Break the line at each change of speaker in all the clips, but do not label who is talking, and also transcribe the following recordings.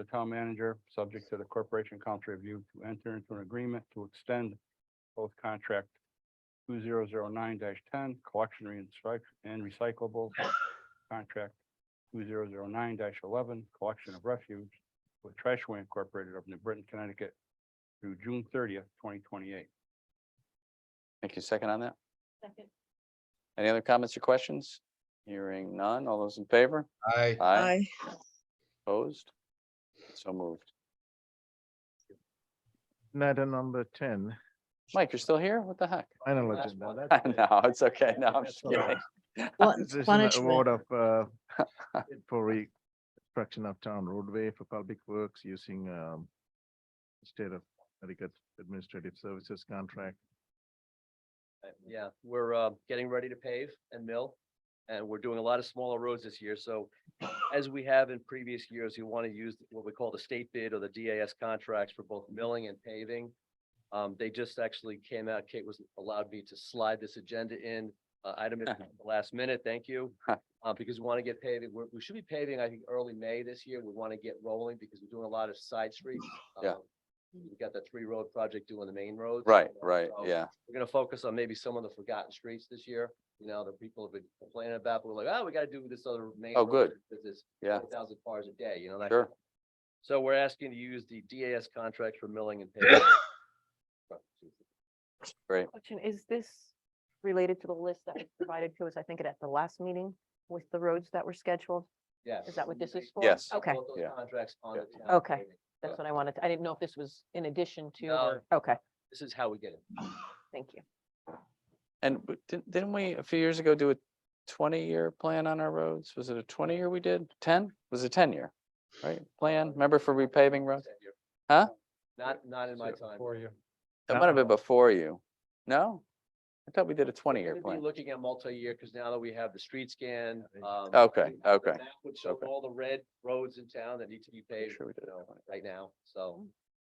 the town manager, subject to the corporation council review, to enter into an agreement to extend both contract two zero zero nine ten, collection and recyc- and recyclables, contract two zero zero nine eleven, collection of refuge with Trashway Incorporated of New Britain, Connecticut through June thirtieth, twenty twenty-eight.
Thank you. Second on that?
Second.
Any other comments or questions? Hearing none. All those in favor?
Aye.
Aye.
Aye.
Opposed? So moved.
Matter number ten,
Mike, you're still here? What the heck?
final
Last
agenda.
one.
That's it.
No, it's okay. No, I'm just
That's all right.
kidding.
Wa-
This is an award
Punishment.
of, uh, bid for reconstruction of town roadway for public works using, um, state of Connecticut Administrative Services Contract.
Uh, Yeah, we're uh getting ready to pave and mill, and we're doing a lot of smaller roads this year, so as we have in previous years, you want to use what we call the state bid or the DAS contracts for both milling and paving. Um, they just actually came out, Kate was allowed me to slide this agenda in, uh, item at the last minute, thank you. Uh, because we want to get paving, we're, we should be paving, I think, early May this year, we want to get rolling because we're doing a lot of side streets.
Yeah.
Um, We've got that three road project doing the main roads.
Right,
you know,
right,
so-
yeah.
we're gonna focus on maybe some of the forgotten streets this year, you know, that people have been complaining about, but we're like, oh, we gotta do this other main.
Oh,
road
good.
Because it's
Yeah,
thousand cars a day, you know, that.
sure.
So we're asking to use the DAS contracts for milling and paving.
Question, is this related to the list that was provided to us, I think, at the last meeting with the roads that were scheduled?
Yeah.
Is that what this is for?
Yes.
Okay,
Both those
Yeah.
Contracts on the town.
Okay.
paving.
that's what I wanted. to- I didn't know if this was in addition to,
No.
or- okay,
This is how we get it.
thank you.
And w- didn't, didn't we a few years ago do a twenty-year plan on our roads? Was it a twenty-year we did? Ten? Was it ten-year? Right? Plan, remember for repaving roads? Huh?
Not, not in my time.
For you.
That
No.
might have been before you. No? I thought we did a twenty-year
We're gonna be
plan.
Looking at multi-year, because now that we have the street scan. um,
Okay,
we have the
okay,
map Which show
okay.
all the red roads in town that need to be paved,
sure we did it
you know,
that way.
right now, so.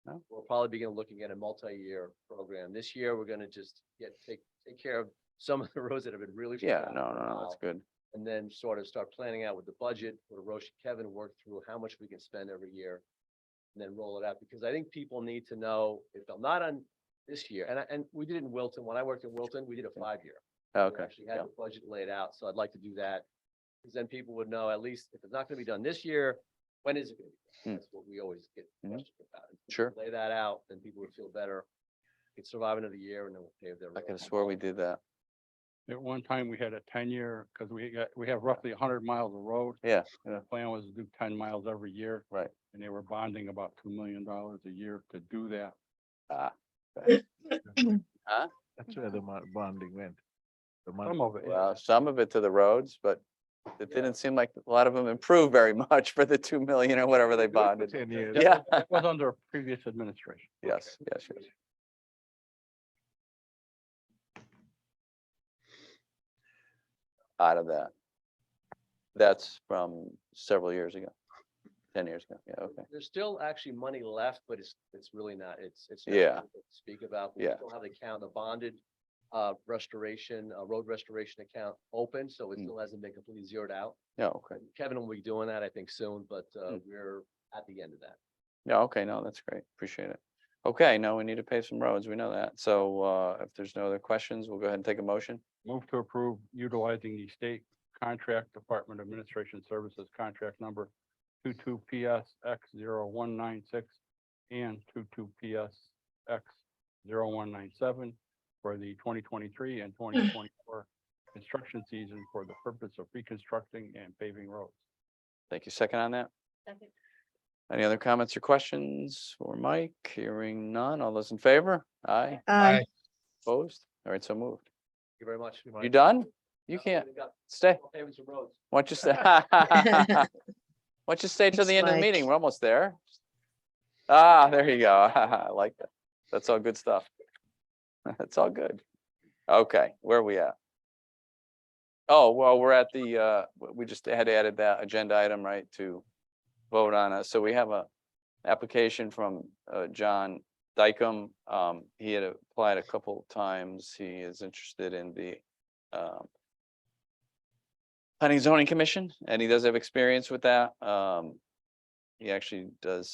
No.
We'll probably begin looking at a multi-year program. This year, we're gonna just get, take, take care of some of the roads that have been really.
Yeah,
forgotten
no,
for a
no, no, that's
while,
good.
And then sort of start planning out with the budget, where Roche and Kevin work through how much we can spend every year. And then roll it out, because I think people need to know if they're not on this year, and I, and we did it in Wilton, when I worked in Wilton, we did a five-year we
Okay,
Actually had
yeah,
the budget laid out, so I'd like to do that. Because then people would know at least if it's not gonna be done this year, when is it gonna be?
Hmm.
done? That's what we always get
Mhm.
questioned about. If we
Sure.
Lay that out, then people would feel better. It's surviving of the year and then we'll pay their.
I could have swore we did that.
At one time, we had a ten-year, because we got, we have roughly hundred miles of road.
Yeah,
And the plan was to do ten miles every year.
Right.
And they were bonding about two million dollars a year to do that.
Ah,
That's
Mm-hmm.
where the mo- bonding went. The money.
Some of it.
well, some of it to the roads, but it didn't seem like a lot of them improved very much for the two million or whatever they bonded.
Ten years.
Yeah,
That was under a previous administration.
yes, yes, yes. Out of that. That's from several years ago, ten years ago, yeah, okay.
There's still actually money left, but it's, it's really not, it's, it's. not
Yeah.
something to Speak about. We
Yeah.
Still have the account, the bonded, uh, restoration, uh, road restoration account open, so it
Hmm.
still hasn't been completely zeroed out.
Yeah, okay.
Kevin will be doing that, I think, soon, but, uh,
Hmm.
we're at the end of that.
Yeah, okay, no, that's great. Appreciate it. Okay, now we need to pave some roads. We know that. So uh if there's no other questions, we'll go ahead and take a motion.
Move to approve utilizing the state contract department administration services contract number two-two PS X zero one nine six and two-two PS X zero one nine seven for the twenty twenty-three and twenty twenty-four construction season for the purpose of reconstructing and paving roads.
Thank you. Second on that?
Second.
Any other comments or questions for Mike? Hearing none. All those in favor? Aye,
Aye.
opposed? All right, so moved.
Thank you very much.
You done? You can't stay.
Paving some roads.
Why don't you stay? Why don't you stay till the
Thanks,
end of the
Mike.
meeting? We're almost there. Ah, there you go. I like that. That's all good stuff. That's all good. Okay, where are we at? Oh, well, we're at the, uh, w- we just had added that agenda item, right, to vote on it. So we have a application from, uh, John Dykem. Um, he had applied a couple times. He is interested in the, um, planning and zoning commission, and he does have experience with that. Um, he actually does